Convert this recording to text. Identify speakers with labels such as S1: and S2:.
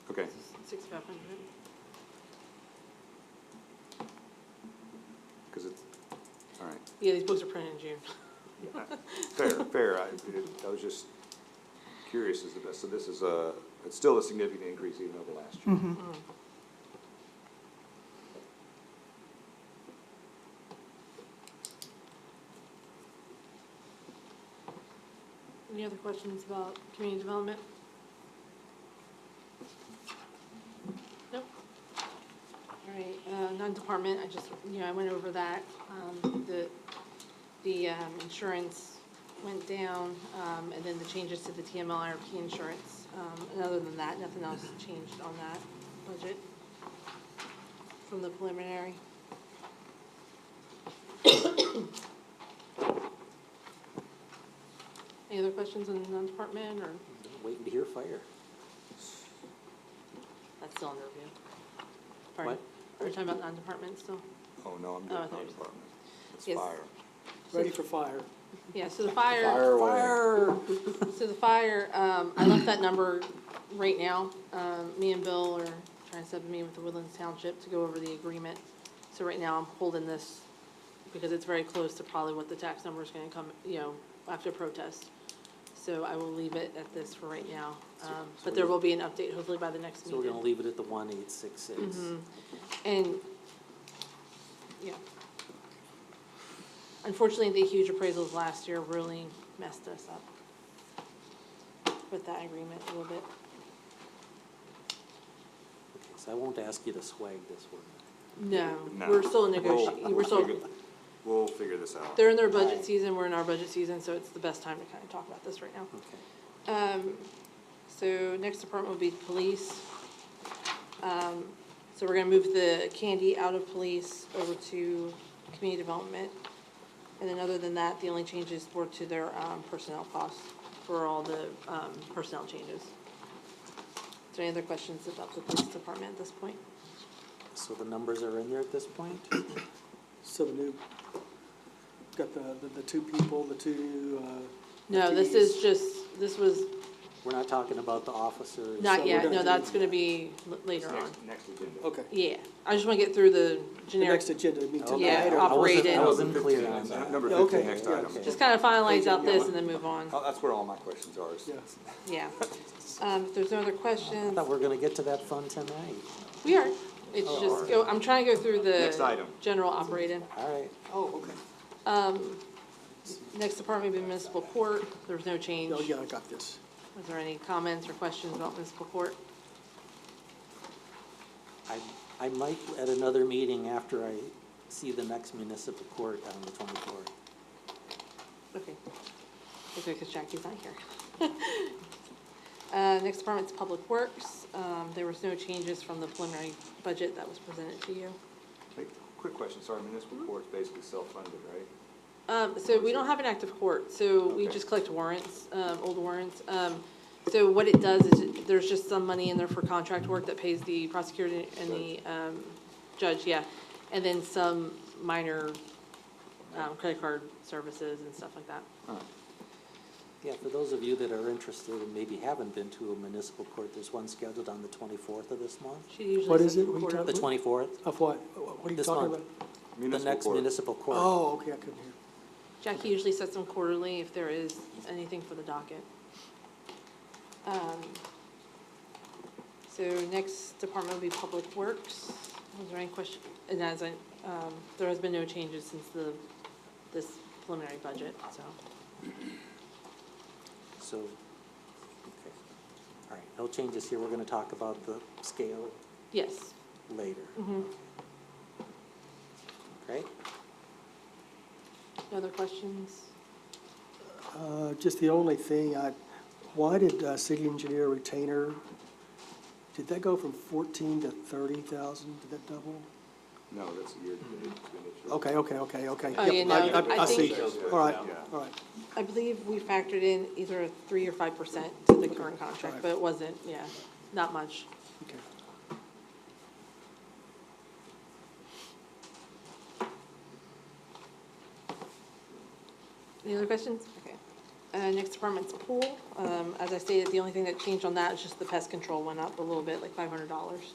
S1: Sixty-five hundred?
S2: Because it's, all right.
S1: Yeah, these books are printed in June.
S2: Fair, fair. I, it- I was just curious as to this. So this is a, it's still a significant increase even over last year.
S1: Any other questions about community development? Nope. All right, uh, non-department, I just, you know, I went over that. Um, the, the, um, insurance went down, um, and then the changes to the TMLRP insurance. Um, and other than that, nothing else changed on that budget from the preliminary. Any other questions on the non-department or?
S3: Waiting to hear fire.
S1: That's still under review. Pardon?
S3: What?
S1: Are we talking about non-department still?
S2: Oh, no, I'm
S1: Oh, I
S2: doing
S1: thought you
S2: fire
S1: said-
S2: department. It's
S1: Yes.
S2: fire.
S3: Ready for fire.
S1: Yeah, so the fire,
S3: Fire.
S1: so the fire, um, I left that number right now. Um, me and Bill are trying to set up a meeting with the Woodlands Township to go over the agreement. So right now I'm holding this because it's very close to probably what the tax number is gonna come, you know, after protest. So I will leave it at this for right now. Um, but there will be an update hopefully by the next
S3: So we're gonna
S1: meeting.
S3: leave it at the one eight six six.
S1: And, yeah. Unfortunately, the huge appraisals last year really messed us up with that agreement a little bit.
S3: So I won't ask you to swag this one.
S1: No,
S2: No.
S1: we're still
S2: We'll-
S1: negotiating, we're still,
S2: figure- We'll figure this out.
S1: they're in their budget season, we're in our budget season, so it's the best time to kind of talk about this right now.
S3: Okay.
S1: Um, so next department will be police. Um, so we're gonna move the candy out of police over to community development. And then other than that, the only changes were to their, um, personnel costs for all the, um, personnel changes. Is there any other questions about the police department at this point?
S3: So the numbers are in there at this point?
S4: So the new, got the, the, the two people, the two, uh.
S1: No, this
S4: FTEs.
S1: is just, this was,
S3: We're not talking about the officers.
S1: not
S4: So we're
S1: yet,
S4: gonna
S1: no,
S4: do-
S1: that's gonna be l- later on.
S2: Next, next agenda.
S4: Okay.
S1: Yeah, I just wanna get through the
S4: The
S1: generic
S4: next agenda would be tonight.
S3: Okay.
S1: Yeah,
S4: or-
S3: I wasn't-
S1: operated.
S3: I wasn't clear on
S2: N-
S3: that.
S2: Number
S4: Yeah,
S2: fifteen,
S4: okay,
S2: next
S4: yeah,
S2: item.
S4: okay.
S1: Just kind of finalize out this and then move on,
S2: Oh, That's where all my questions are. is-
S4: Yeah.
S1: yeah. Um, if there's no other
S3: I
S1: questions,
S3: thought we were gonna get to that fund tonight.
S1: we are, it's just, go- I'm trying to go through the.
S2: Next item.
S1: General operating.
S3: All right.
S4: Oh, okay.
S1: Next department would be municipal court, there was no change.
S4: Oh, yeah, I got this.
S1: Was there any comments or questions about municipal court?
S3: I, I might at another meeting after I see the next municipal court on the twenty-fourth.
S1: Okay. Okay, because Jackie's not here. Uh, next department's public works, um, there was no changes from the preliminary budget that was presented to you.
S2: Hey, Quick question, sorry, municipal
S1: Mm-hmm.
S2: court's basically self-funded, right?
S1: Um, so we don't have an active court, so we
S2: Okay.
S1: just collect warrants, um, old warrants. Um, so what it does is, it- there's just some money in there for contract work that pays the prosecutor and the, um, judge, yeah. And then some minor, um, credit card services and stuff like that.
S3: Yeah, for those of you that are interested and maybe haven't been to a municipal court, there's one scheduled on the twenty-fourth of this month.
S1: She usually.
S4: What
S1: says
S4: is it we
S1: quarter-
S4: talk-
S3: The twenty-fourth,
S4: Of what? What are you
S3: This
S4: talking
S3: month.
S4: about?
S3: the
S2: Municipal
S3: next
S2: court.
S3: municipal court.
S4: Oh, okay, I couldn't hear.
S1: Jackie usually sets them quarterly if there is anything for the docket. Um, So next department will be Public Works. Was there any question? And as I, um, there has been no changes since the, this preliminary budget, so.
S3: So, okay. All right, no changes here. We're gonna talk about the scale
S1: Yes.
S3: later.
S2: Mm-hmm.
S1: Mhm.
S3: Great.
S1: No other questions?
S4: Uh, just the only thing, I, why did, uh, city engineer retainer, did that go from fourteen to thirty thousand? Did that double?
S2: No, that's a year-to-date expenditure.
S4: Mm-hmm. Okay, okay, okay, okay.
S1: Oh,
S4: Yep,
S1: yeah, no,
S4: I- I,
S1: I
S4: I see.
S2: think-
S4: All right,
S2: Yeah.
S4: all right.
S1: I believe we factored in either a three or five percent to the current contract, but it wasn't, yeah, not much.
S4: Okay.
S1: Any other questions? Okay. Uh, next department's pool. Um, as I stated, the only thing that changed on that is just the pest control went up a little bit, like five hundred dollars.